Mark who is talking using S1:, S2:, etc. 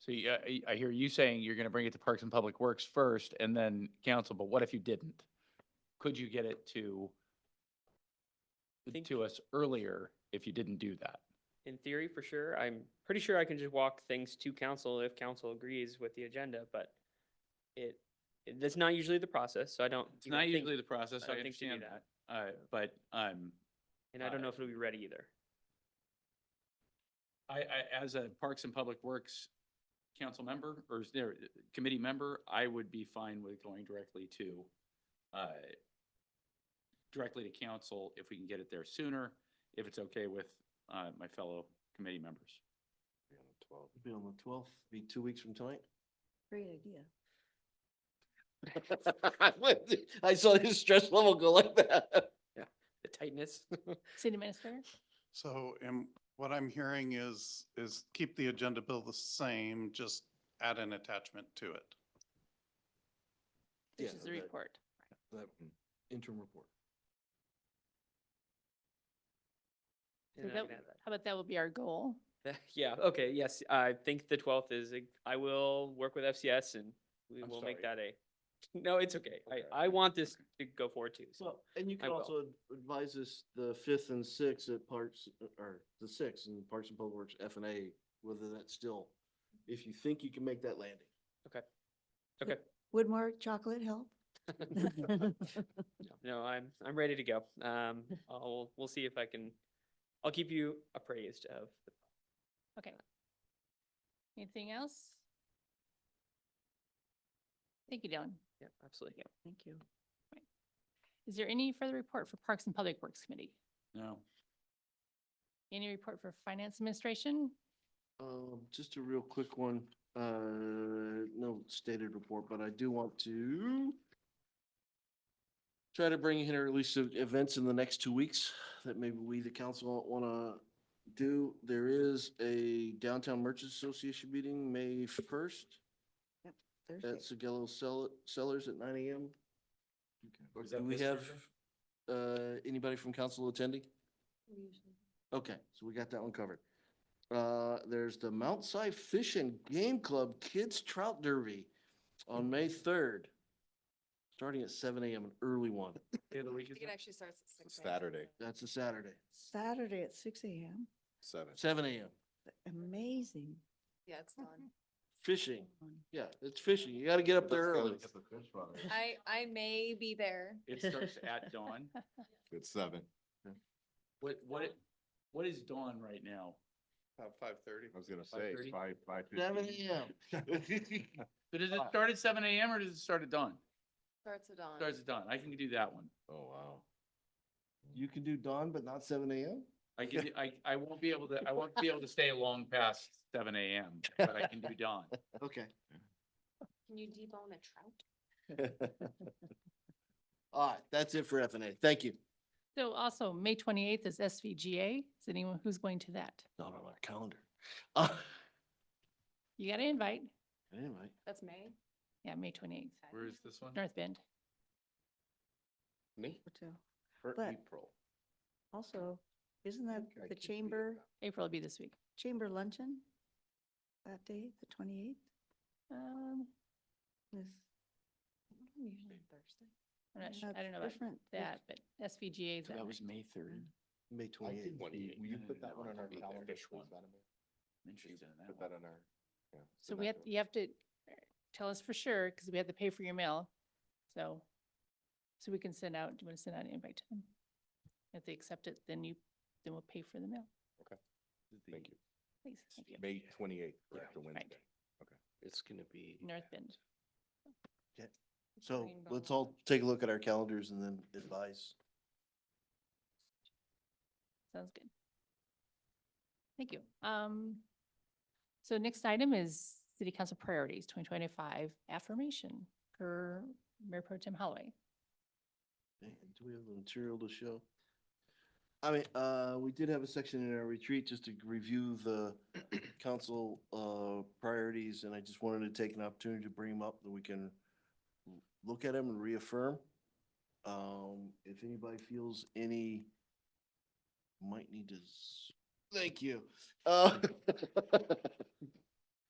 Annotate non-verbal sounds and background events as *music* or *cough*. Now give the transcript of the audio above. S1: So you- I, I hear you saying you're going to bring it to Parks and Public Works first and then council, but what if you didn't? Could you get it to,
S2: Think-
S1: to us earlier if you didn't do that?
S2: In theory, for sure. I'm pretty sure I can just walk things to council if council agrees with the agenda, but it, it- that's not usually the process, so I don't.
S3: It's
S2: even
S3: not
S2: think-
S3: usually the process,
S2: I
S3: I
S2: don't think you do
S3: understand that, uh, but, um,
S2: And I don't know if it'll be ready either.
S3: I, I, as a Parks and Public Works council member, or is there, uh, committee member, I would be fine with going directly to, uh, directly to council if we can get it there sooner, if it's okay with, uh, my fellow committee members.
S4: Be on the twelfth. Be on the twelfth, be two weeks from tonight.
S5: Great idea.
S4: I saw his stress level go like that.
S2: The tightness. *laughs*
S5: City Minister?
S6: So, and what I'm hearing is, is keep the agenda bill the same, just add an attachment to it.
S4: Yeah,
S5: This is the
S4: okay.
S5: report.
S4: That interim report.
S5: So
S2: And I
S5: that-
S2: can add that.
S5: How about that will be our goal?
S2: *laughs* Yeah, okay, yes, I think the twelfth is, a- I will work with FCS and we
S3: I'm
S2: will make
S3: sorry.
S2: that a, *laughs* no, it's okay.
S3: Okay.
S2: I, I want this to go forward too, so.
S4: Well, and you
S2: I
S4: can
S2: will.
S4: also ad- advise us the fifth and sixth at Parks, uh, or the sixth in Parks and Public Works F and A, whether that's still, if you think you can make that landing.
S5: Would more chocolate help?
S2: *laughs*
S3: *laughs*
S2: No, I'm, I'm ready to go.
S3: *laughs*
S2: Um, I'll, we'll see if I can, I'll keep you appraised of the
S5: Okay. Anything else? Thank you, Dylan.
S2: Yeah, absolutely.
S5: Thank you. Is there any further report for Parks and Public Works Committee?
S3: No,
S5: Any report for Finance Administration?
S4: Um, just a real quick one, uh, no stated report, but I do want to try to bring in here at least of events in the next two weeks that maybe we, the council, wanna do. There is a Downtown Merchants Association meeting, May first, at Sagello Cell- Cellars at nine AM. Or
S3: Is that
S4: Do we
S3: this
S4: have,
S3: Thursday?
S4: uh, anybody from council attending? Okay, so we got that one covered. Uh, there's the Mount Si Fish and Game Club Kids Trout Derby on May third. Starting at seven AM, an early one.
S3: day of the week is
S7: I think it
S3: that?
S7: actually starts at six. AM.
S8: Saturday,
S4: That's a Saturday,
S9: Saturday at six AM.
S8: seven.
S4: seven AM.
S9: Amazing.
S7: Yeah, it's done.
S4: Fishing. Yeah, it's fishing. You gotta get up there early.
S7: I, I may be there.
S3: It starts *laughs* at dawn?
S8: It's seven.
S3: What, what, what is dawn right now?
S8: About five thirty. I was gonna
S3: 5:30?
S8: say, it's five, five
S4: Seven
S8: fifteen.
S4: AM.
S3: So does it start at seven AM or does it start at dawn?
S7: Starts at dawn.
S3: Starts at dawn. I can do that one.
S8: Oh, wow.
S4: You can do dawn, but not seven AM?
S3: I can, do- I, I won't be able to, I won't be able to stay long past seven AM, but I can do dawn.
S4: Okay.
S7: Can you debone a trout?
S4: *laughs* All right, that's it for F and A. Thank you.
S5: So also, May twenty-eighth is SVGA. Is anyone who's going to that?
S4: Not on our *laughs* calendar. Uh,
S5: You got an invite?
S4: Anyway.
S7: That's May.
S5: Yeah, May twenty-eighth,
S3: Where is this one?
S5: North Bend.
S4: Me?
S9: Hotel.
S4: For
S9: But-
S4: April.
S9: Also, isn't that
S4: I
S9: the
S4: keep forgetting
S9: chamber,
S5: April will be this week.
S9: chamber luncheon? That day, the twenty-eighth?
S5: Um,
S7: Thursday.
S5: I'm not sure, I don't know about
S9: Different. It's
S5: that, but SVGA is that night.
S3: May third.
S4: May twenty-eighth.
S8: Will you put that one on our calendar?
S3: Interested in
S8: Put
S3: that
S8: that
S3: one.
S8: on our. yeah,
S5: So
S8: put
S5: we
S8: that
S5: have,
S8: on-
S5: you have to uh, tell us for sure, because we have to pay for your mail. So, so we can send out, do you want to send out an invite to them? If they accept it, then you, then we'll pay for the mail.
S8: Thank you.
S5: Please, thank you.
S8: May twenty-eighth, correct, the Wednesday.
S4: It's gonna be.
S5: North Bend.
S4: So
S5: Green
S4: let's
S5: Belt.
S4: all take a look at our calendars and then advise.
S5: Sounds good. Thank you. Um, so next item is city council priorities, twenty twenty-five affirmation for Mayor Pro Tem Holloway.
S4: Okay, and Do we have the material to show? I mean, uh, we did have a section in our retreat just to review the *clears throat* council, uh, priorities, and I just wanted to take an opportunity to bring them up that we can l- look at them and reaffirm. Um, if anybody feels any, *laughs* might need to, s- thank you. Uh,